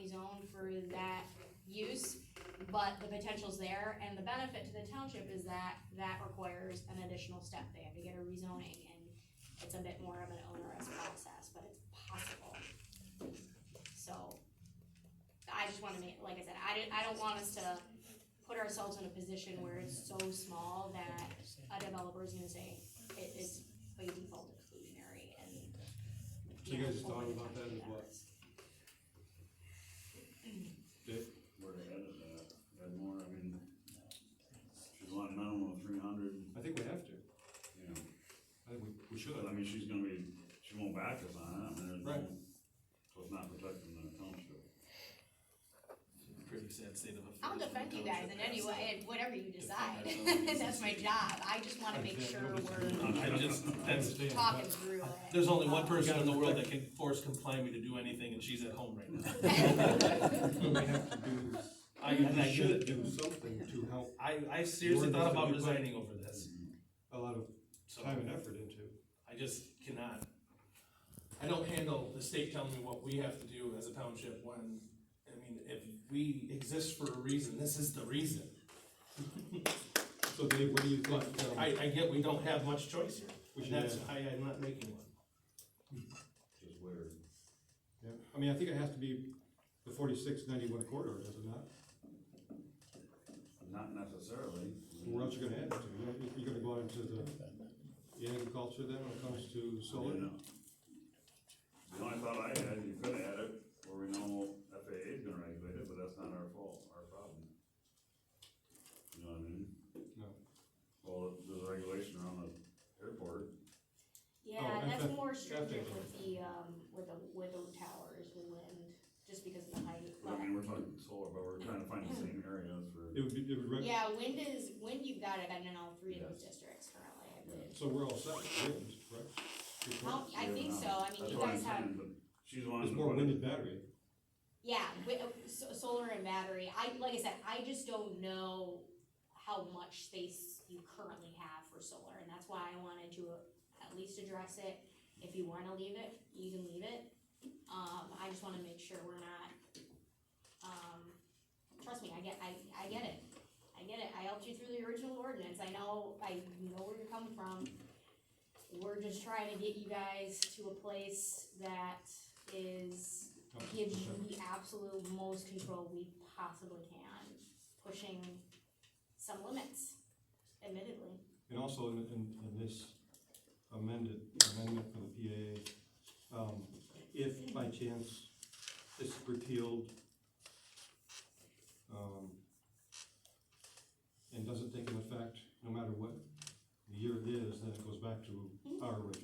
through that use, but the potential's there, and the benefit to the township is that that requires an additional step, they have to get a rezoning, and it's a bit more of an onerous process, but it's possible. So, I just wanna make, like I said, I didn't, I don't want us to put ourselves in a position where it's so small that a developer is gonna say, it is by default exclusionary and. So you guys just thought about that as well? where they headed at, that uh, more, I mean, she's wanting minimum of three hundred, I think we have to, you know, I think we, we should, but I mean, she's gonna be, she won't back us on it, I mean, there's no, Right. so it's not protecting the township. Pretty sad state of affairs. I'll defend you guys in any way, and whatever you decide, that's my job, I just wanna make sure we're I just, that's, understand. talking through it. there's only one person in the world that can force comply me to do anything, and she's at home right now. But we have to do, I, and I we get should it. do something to help I, I seriously thought about resigning over this, a lot of so time and effort into. I just cannot. I don't handle the state telling me what we have to do as a township when, I mean, if we exist for a reason, this is the reason. So Dave, what do you think, But um, I, I get we don't have much choice here, we should and that's add? why I'm not making one. Just weird. Yeah, I mean, I think it has to be the forty-six ninety-one corridor, does it not? Not necessarily. I mean, Where else you gonna add it to, you're, you're gonna go out into the the agriculture then, when it comes to I solar? mean, no. The only thought I had, you could add it, where we know FAA is gonna regulate it, but that's not our fault, our problem. You know what I mean? No. Well, there's a regulation around the airport, Yeah, Oh, that's that's- more that's stringent different. with the, um, with the, with the towers, with wind, just because of the height, I but. mean, we're talking solar, but we're trying to find the same areas for. It would be, it would, reg- Yeah, wind is, wind you've got it in all three of those districts currently, I believe. so we're all set, with winds, correct? Good point. Well, I think so, I mean, That's you what I'm guys have, saying, but She's There's wanting to more put wind it, and battery, yeah, wi- uh, so- solar and battery, I, like I said, I just don't know how much space you currently have for solar, and that's why I wanted to uh, at least address it. If you wanna leave it, you can leave it, um, I just wanna make sure we're not, um, trust me, I get, I, I get it. I get it, I helped you through the original ordinance, I know, I know where you're coming from. We're just trying to get you guys to a place that is gives you the absolute most control we possibly can, pushing some limits, admittedly. and also in, in, in this amended amendment for the PAA, um, if by chance it's repealed, um, and doesn't take an effect, no matter what the year it is, then it goes back to our original.